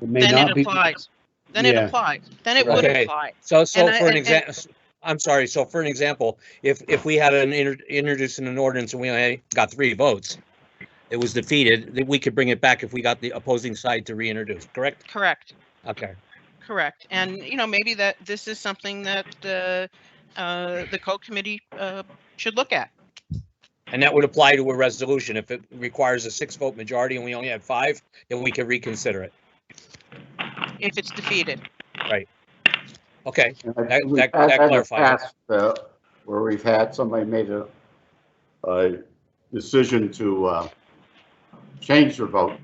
It may then not it be. applies. Then it Yeah. applies. Then it would Okay. apply. So, so And I- for an and- example, I'm sorry, so for an example, if, if we had an inter- introducing an ordinance and we only got three votes, it was defeated, then we could bring it back if we got the opposing side to reintroduce, correct? Correct. Okay. Correct. And, you know, maybe that this is something that the, uh, the code committee, uh, should look at. And that would apply to a resolution. If it requires a six vote majority and we only had five, then we can reconsider it. if it's defeated. Okay, That, That- that- that clarifies it. That, where we've had, somebody made a, a decision to, uh, change their vote.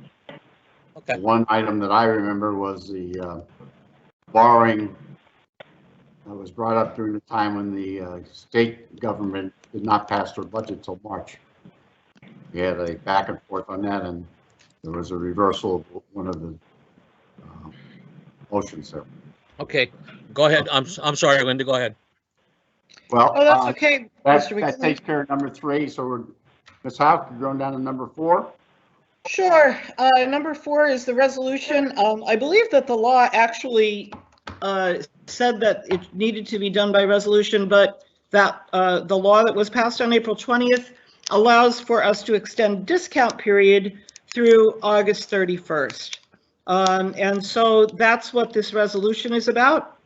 okay. One item that I remember was the, uh, borrowing that was brought up during the time when the, uh, state government did not pass their budget till March. We had a back and forth on that and there was a reversal of one of the, uh, motions there. Okay, go ahead. I'm, s- I'm sorry, Linda, go ahead. Well. Oh, uh, that's okay, That, Mr. that McLean. takes care of number three, so we're, Ms. House, we're going down to number four. Sure. Uh, Number four is the resolution. Um, I believe that the law actually uh, said that it needed to be done by resolution, but that uh, the law that was passed on April 20th allows for us to extend discount period through August 31st. Um, And so that's what this resolution is about.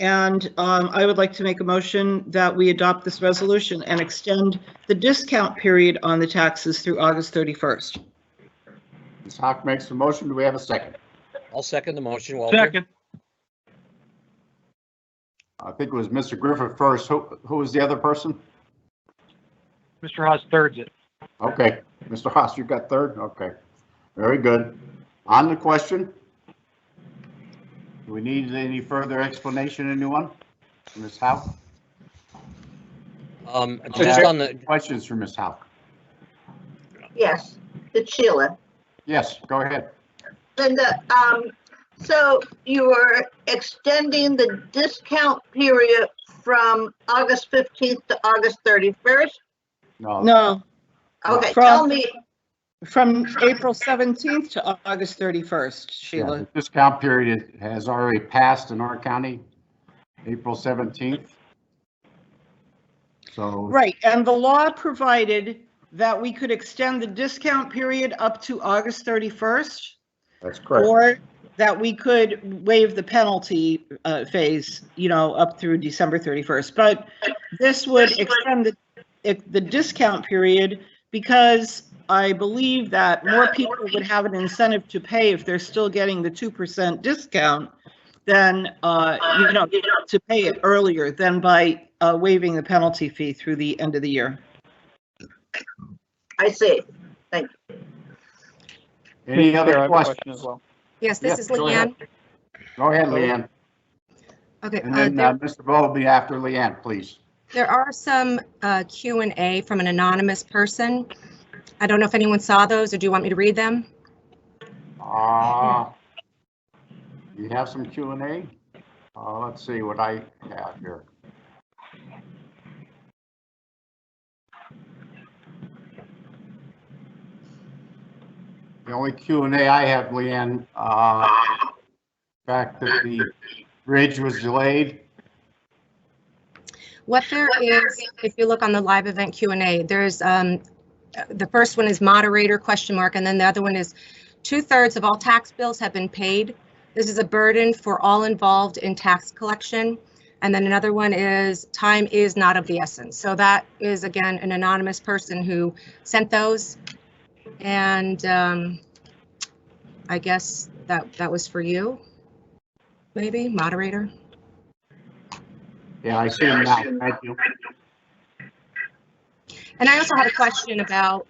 And um, I would like to make a motion that we adopt this resolution and extend the discount period on the taxes through August 31st. Ms. Hawk makes the motion. Do we have a second? I'll second the motion, Walter. Second, I think it was Mr. Griffith first. Who, who was the other person? Mr. Haas thirds it. Okay, Mr. Haas, you got third? Okay, very good. On the question? Do we need any further explanation, anyone? Ms. Howe? Um, just on the, Questions for Ms. Howe? Yes, it's Sheila. Yes, go ahead. Linda, um, so you are extending the discount period from August fifteenth to August thirty-first? No, No, Okay, From- tell me, from April 17th to Au- August yeah, 31st, Sheila. the discount period has already passed in our county, April 17th. So. Right, and the law provided that we could extend the discount period up to August 31st, That's correct. or that we could waive the penalty uh, phase, you know, up through December 31st. But this would extend the, it- the discount period because I believe that more people would have an incentive to pay if they're still getting the 2% discount than, uh, you know, to pay it earlier than by uh, waiving the penalty fee through the end of the year. I see. Any Chair, I other have a question questions? as well. Yes, Yes, this is go ahead. Leanne. Go ahead, Leanne. Okay, And uh, then uh, there- Mr. Bo will be after Leanne, please. there are some uh, Q and A from an anonymous person. I don't know if anyone saw those, or do you want me to read them? Uh, You have some Q and A? Uh, Let's see what I have here. The only Q and A I have, Leanne, uh, fact that the bridge was delayed. What there is, if you look on the live event Q and A, there's, um, uh, the first one is moderator question mark, and then the other one is two thirds of all tax bills have been paid. This is a burden for all involved in tax collection. And then another one is time is not of the essence. So that is again, an anonymous person who sent those. And, um, I guess that, that was for you, maybe moderator? Yeah, I see them now. Thank you. And I also had a question about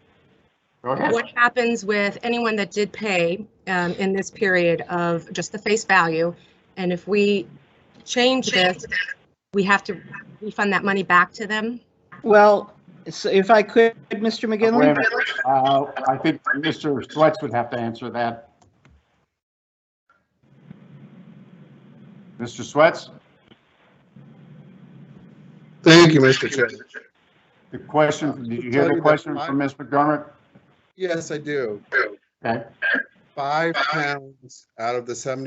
Go ahead. what happens with anyone that did pay um, in this period of just the face value? And if we change this, we have to refund that money back to them? Well, so if I could, Mr. Wait a McGinley? minute. Uh, I think Mr. Swets would have to answer that. Mr. Swets, Thank you, Mr. Chairman. the question, did you hear the question from Ms. McDermott? Yes, I do. Okay. Five pounds out of the seventy.